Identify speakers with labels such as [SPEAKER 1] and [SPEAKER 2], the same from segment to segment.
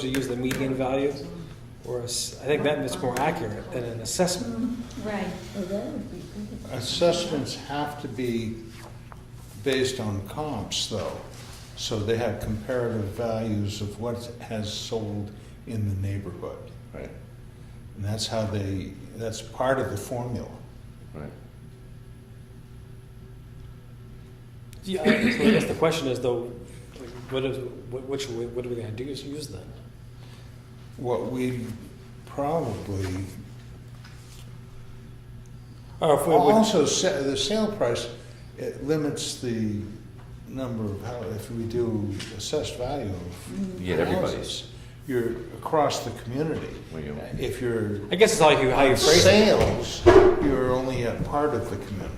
[SPEAKER 1] to use the median value, or a s- I think that is more accurate than an assessment.
[SPEAKER 2] Right.
[SPEAKER 3] Assessments have to be based on comps, though, so they have comparative values of what has sold in the neighborhood.
[SPEAKER 4] Right,
[SPEAKER 3] And that's how they, that's part of the formula.
[SPEAKER 4] right.
[SPEAKER 1] Yeah, I so I guess the question is though, like, what is, what, which, what are we gonna do is use that?
[SPEAKER 3] What we probably,
[SPEAKER 1] Or if we would,
[SPEAKER 3] also, sa- the sale price, it limits the number of, how if we do assessed value of
[SPEAKER 4] You get everybody's.
[SPEAKER 3] houses, You're across the community.
[SPEAKER 4] Well, you-
[SPEAKER 3] If you're
[SPEAKER 1] I guess it's all you, how you phrase it.
[SPEAKER 3] sales, you're only a part of the community.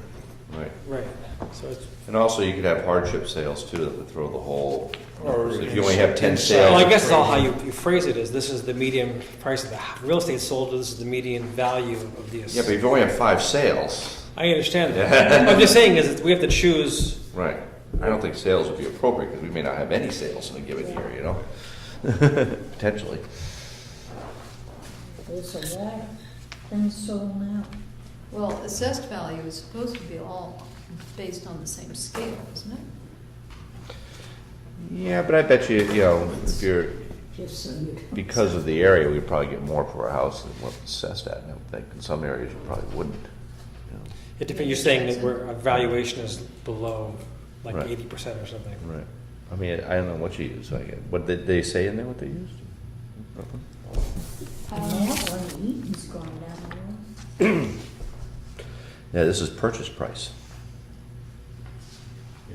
[SPEAKER 4] Right.
[SPEAKER 1] Right, so it's,
[SPEAKER 4] And also, you could have hardship sales too, that would throw the whole,
[SPEAKER 3] Or
[SPEAKER 4] if you only have ten
[SPEAKER 3] inside-
[SPEAKER 4] sales.
[SPEAKER 1] well, I guess it's all how you, you phrase it is, this is the median price of the h- real estate sold, this is the median value of the. ass-
[SPEAKER 4] Yeah, but if you only have five sales,
[SPEAKER 1] I understand that. I'm just saying is that we have to choose,
[SPEAKER 4] right, I don't think sales would be appropriate, because we may not have any sales in a given year, you know? Potentially.
[SPEAKER 5] There's a lot things sold now.
[SPEAKER 2] Well, assessed value is supposed to be all based on the same scale, isn't it?
[SPEAKER 4] Yeah, but I bet you, you know, if you're,
[SPEAKER 5] Just so you don't-
[SPEAKER 4] because of the area, we'd probably get more for a house than what's assessed at, and I would think in some areas we probably wouldn't. you know.
[SPEAKER 1] it depends, you're saying that we're, our valuation is below like
[SPEAKER 4] Right.
[SPEAKER 1] eighty percent or something.
[SPEAKER 4] Right. I mean, I don't know what you use, like, what did they say in there, what they used? Nothing?
[SPEAKER 5] And that one, Eaton's gone down
[SPEAKER 4] Yeah, this is purchase price,
[SPEAKER 3] Yeah.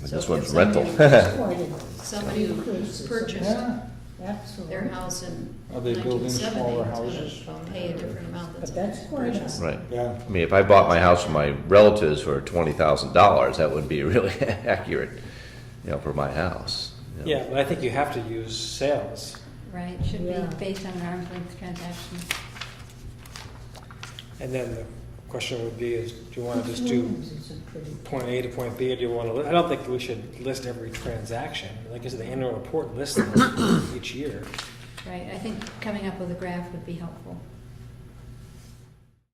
[SPEAKER 4] and
[SPEAKER 2] So
[SPEAKER 4] this
[SPEAKER 2] if
[SPEAKER 4] one's
[SPEAKER 2] somebody-
[SPEAKER 4] rental.
[SPEAKER 5] there. Quite a-
[SPEAKER 2] Somebody who
[SPEAKER 5] Increases.
[SPEAKER 2] purchased
[SPEAKER 3] Yeah,
[SPEAKER 5] Absolutely.
[SPEAKER 2] their house in
[SPEAKER 3] Are they building
[SPEAKER 2] nineteen
[SPEAKER 3] smaller
[SPEAKER 2] seventy is
[SPEAKER 3] houses?
[SPEAKER 2] gonna pay a different amount
[SPEAKER 5] But
[SPEAKER 2] than
[SPEAKER 5] that's quite
[SPEAKER 2] purchase.
[SPEAKER 5] a,
[SPEAKER 4] Right.
[SPEAKER 3] yeah.
[SPEAKER 4] I mean, if I bought my house from my relatives for twenty thousand dollars, that would be really accurate, you know, for my house. you know.
[SPEAKER 1] Yeah, but I think you have to use sales.
[SPEAKER 6] Right, should
[SPEAKER 5] Yeah.
[SPEAKER 6] be based on an arm's length transaction.
[SPEAKER 1] And then the question would be is, do you want to just do
[SPEAKER 5] Williams is a pretty,
[SPEAKER 1] point A to point B, or do you want to, I don't think we should list every transaction. Like I said, the annual report lists them each year.
[SPEAKER 6] Right, I think coming up with a graph would be helpful.